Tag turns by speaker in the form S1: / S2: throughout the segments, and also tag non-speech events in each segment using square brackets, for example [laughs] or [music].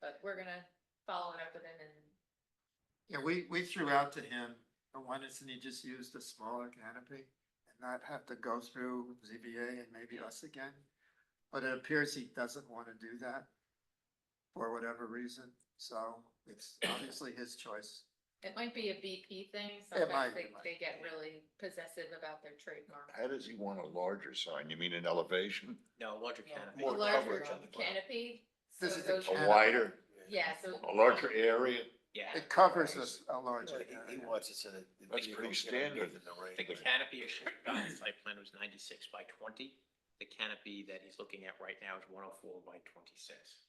S1: but we're gonna follow it up with him and
S2: Yeah, we, we threw out to him, the one is, and he just used a smaller canopy and not have to go through ZBA and maybe us again. But it appears he doesn't want to do that for whatever reason, so it's obviously his choice.
S1: it might be a VP thing,
S2: might,
S1: sometimes
S2: it
S1: they,
S2: might.
S1: they get really possessive about their trademark.
S3: How does he want a larger sign? You mean an elevation?
S4: No, larger
S1: Yeah.
S4: canopy.
S1: A
S3: More
S1: larger
S3: coverage on the ground.
S1: canopy. so
S2: This is
S1: those-
S2: the
S3: A wider,
S1: Yeah, so.
S3: a larger area?
S4: Yeah.
S2: It covers us a large.
S5: He he wants it so that. the
S3: That's pretty
S5: vehicles get
S3: standard.
S5: underneath in the
S4: The
S5: rain.
S4: canopy issue, the site plan was ninety-six by twenty. The canopy that he's looking at right now is one oh four by twenty-six.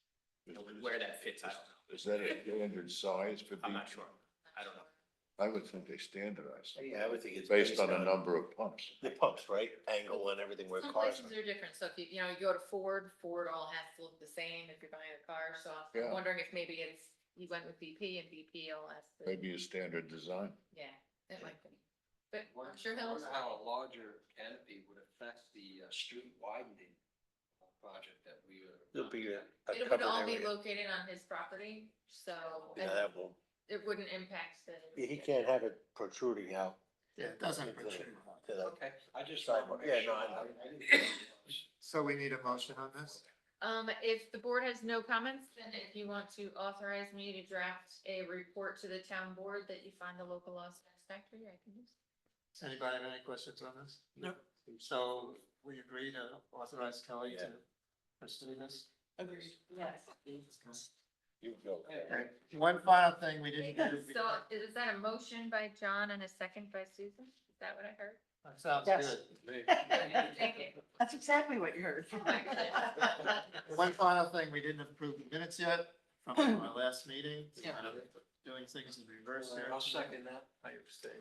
S4: Where that fits, I don't know.
S3: Is that a standard size for?
S4: I'm
S3: B-
S4: not sure. I don't know.
S3: I would think they standardized, it
S5: Yeah, I would think it's.
S3: based on the number of pumps.
S5: The pumps, right? Angle and everything where
S1: Some
S5: cars.
S1: places are different, so if you, you know, you go to Ford, Ford all has to look the same if you're buying a car, so
S3: Yeah.
S1: I'm wondering if maybe it's, he went with VP and VP all has to,
S3: Maybe a standard design.
S1: yeah, it might be. But I'm sure he'll,
S6: How a larger canopy would affect the uh, street widening project that we are.
S5: It'll be a a
S1: it would
S5: covered
S1: all be
S5: area.
S1: located on his property, so
S5: Yeah,
S1: and
S5: that won't,
S1: it wouldn't impact the.
S5: yeah, he can't have it protruding out
S2: Yeah, it doesn't protrude.
S5: to the,
S6: Okay, I just.
S5: Sorry,
S6: wanted to
S5: yeah,
S6: make sure.
S5: no, I
S6: I- I didn't-
S2: So we need a motion on this?
S1: Um, if the board has no comments, then if you want to authorize me to draft a report to the town board that you find the local law satisfactory, I can do so.
S2: Does anybody have any questions on this? No. So we agree to authorize Kelly to pursue this?
S1: Agreed. Yes.
S3: You go.
S2: Okay, One final thing we didn't do.
S1: [laughs] So is that a motion by John and a second by Susan? Is that what I
S7: [laughs]
S1: heard?
S2: That sounds
S7: Yes.
S2: good.
S1: Thank you.
S7: That's exactly what you heard.
S1: Oh my goodness.
S2: One final thing, we didn't approve the minutes yet from our last meeting,
S7: Yeah.
S2: kind of doing things in reverse here.
S6: I'll second that.
S2: I abstain.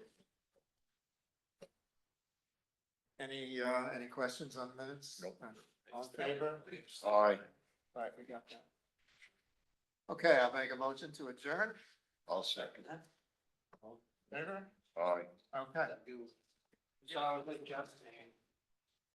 S2: Any, uh, any questions on the minutes? Uh,
S3: Nope.
S2: All in favor?
S3: Aye,
S2: All right, we got that. Okay, I'll make a motion to adjourn.
S3: I'll second.
S2: Favor?
S3: Aye.
S2: Okay.
S6: So I was like, Justin.